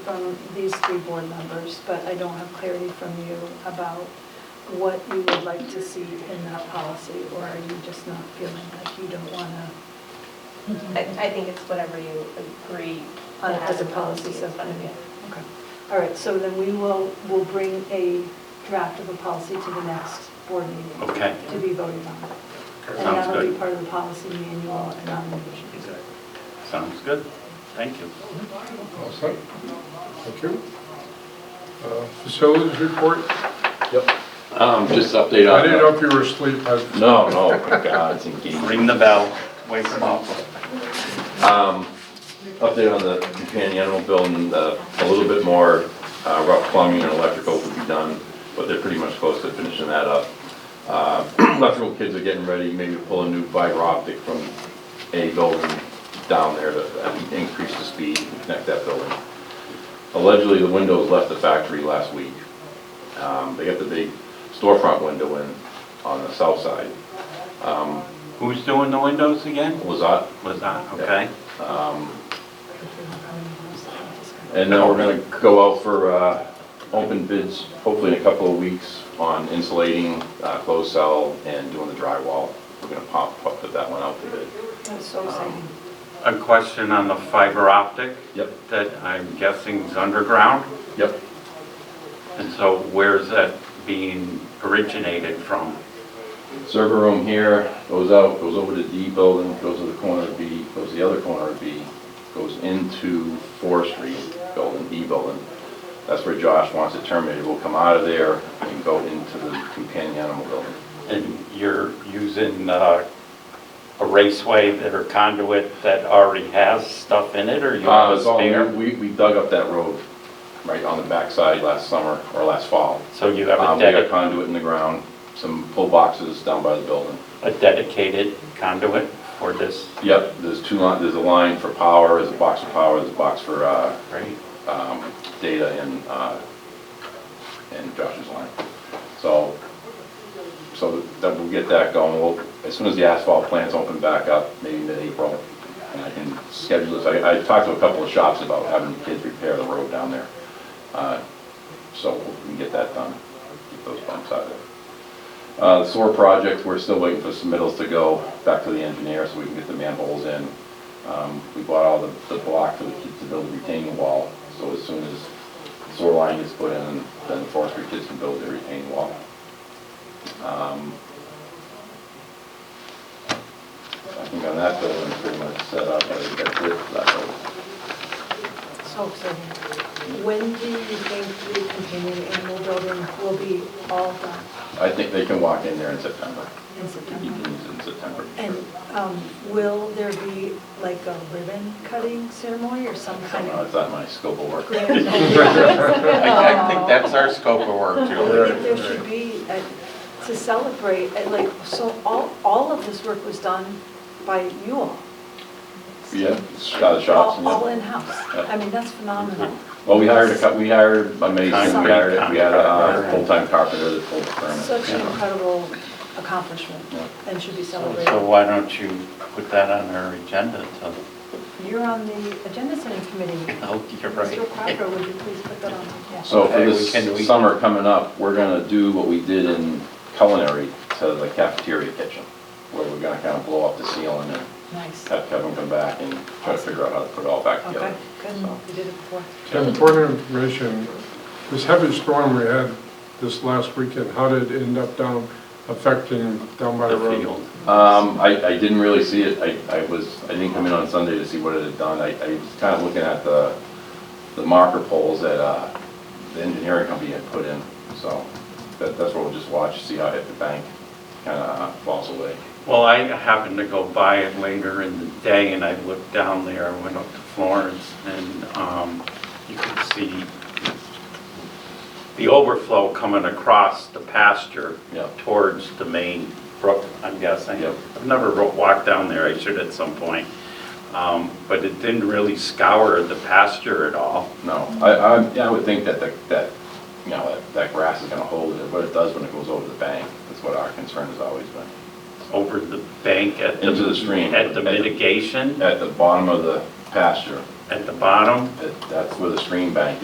from these three board members, but I don't have clarity from you about what you would like to see in that policy, or are you just not feeling like you don't want to, I, I think it's whatever you agree. on- to uh, as a have policy is subcommittee? fine, Okay. All right, so then we will, we'll bring a draft of a policy to the next board meeting Okay, to be voted on. And Sounds that'll be good. part of the policy manual and on the vision. sounds good. Thank you. All set. Oh, Thank you. Uh, Facilities report? Um, just update I didn't know on, if you were asleep. I- no, no, my God, it's engaging. Ring the bell, wake them up. Um, update on the companion animal building, the, a little bit more, uh, rough plumbing and electrical would be done, but they're pretty much close to finishing that up. Uh, electrical kids are getting ready, maybe pull a new fiber optic from a building down there to uh, increase the speed and connect that building. Allegedly, the windows left the factory last week. Um, they got the big storefront window in on the south side. Um, Who's doing the windows again? was that, Was that, okay? And now we're gonna go out for, uh, open bids, hopefully in a couple of weeks, on insulating, uh, closed cell and doing the drywall. We're gonna pop, pop- put that one out to bid. That's so exciting. A question on the fiber optic Yep, that I'm guessing is underground. yep. And so where's that being originated from? Server room here, goes out, goes over to D building, goes to the corner of B, goes to the other corner of B, goes into forestry building, E building. That's where Josh wants it terminated. We'll come out of there and go into the companion animal building. And you're using uh, a raceway that or conduit that already has stuff in it, or you Uh, have a it's all new. spare? We, we dug up that road right on the backside last summer or last fall. So you have Um, a we got dedicated, conduit in the ground, some pull boxes down by the building. a dedicated conduit for this, Yep, there's two line, there's a line for power, there's a box for power, there's a box for, uh, right? um, data and, uh, and Josh's line. So, so that we'll get that going. We'll, as soon as the asphalt plants open back up, maybe mid-April, and I can schedule this. I, I talked to a couple of shops about having kids repair the road down there. Uh, So we can get that done, get those bumps out of there. Uh, the sewer project, we're still waiting for submittals to go back to the engineer so we can get the manholes in. Um, we bought all the, the block for the, to build the retaining wall, so as soon as sewer line gets put in, then the forestry kids can build their retaining wall. Um, I think on that building, pretty much set up, I think that's it for that building. So exciting. When do you think the companion animal building will be all done I think they can walk in there in September. in You can September? use it in September. And um, will there be like a ribbon cutting ceremony or some kind Somehow of it's not my scope of work. grand? I I think that's our scope of work, I Julie. think there should be, uh, to celebrate, uh, like, so all, all of this work was done by you all? Yeah, shot of shops. All and yeah. all in-house? Yeah. I mean, that's phenomenal. Well, we hired a couple, we hired a mason, we Concrete hired, we had contractor. a full-time carpenter that pulled the Such an permit. incredible accomplishment Yeah. and should be So celebrated. why don't you put that on our agenda to, You're on the agenda setting committee. oh, you're Mr. right. Crocker, would you please put that on? Yeah. So for Okay, we can- we- this summer coming up, we're gonna do what we did in culinary to the cafeteria kitchen, where we're gonna kind of blow up the ceiling and Oh. Nice. have Kevin come back and try to figure out how to put it all back Okay, together. good. So- You did it before. Tim, for your information, this heavy storm we had this last weekend, how did it end up down affecting down by the The road? field. Um, I, I didn't really see it, I, I was, I didn't come in on Sunday to see what it had done, I, I was kind of looking at the, the marker poles that, uh, the engineering company had put in, so, that, that's what we'll just watch, see how it hit the bank, kind of falls away. Well, I happened to go by it later in the day and I looked down there, I went up to Florence and um, you could see the overflow coming across the pasture Yep. towards the main brook, I'm guessing. Yep. I've never ro- walked down there, I should at some point. Um, But it didn't really scour the pasture at all. No, I, I, yeah, I would think that, the- that, you know, that, that grass is gonna hold it, but it does when it goes over the bank, that's what our concern has always been. over the bank at the... Into the stream. At the mitigation, At the bottom of the pasture, at the bottom. That- That's where the stream bank is.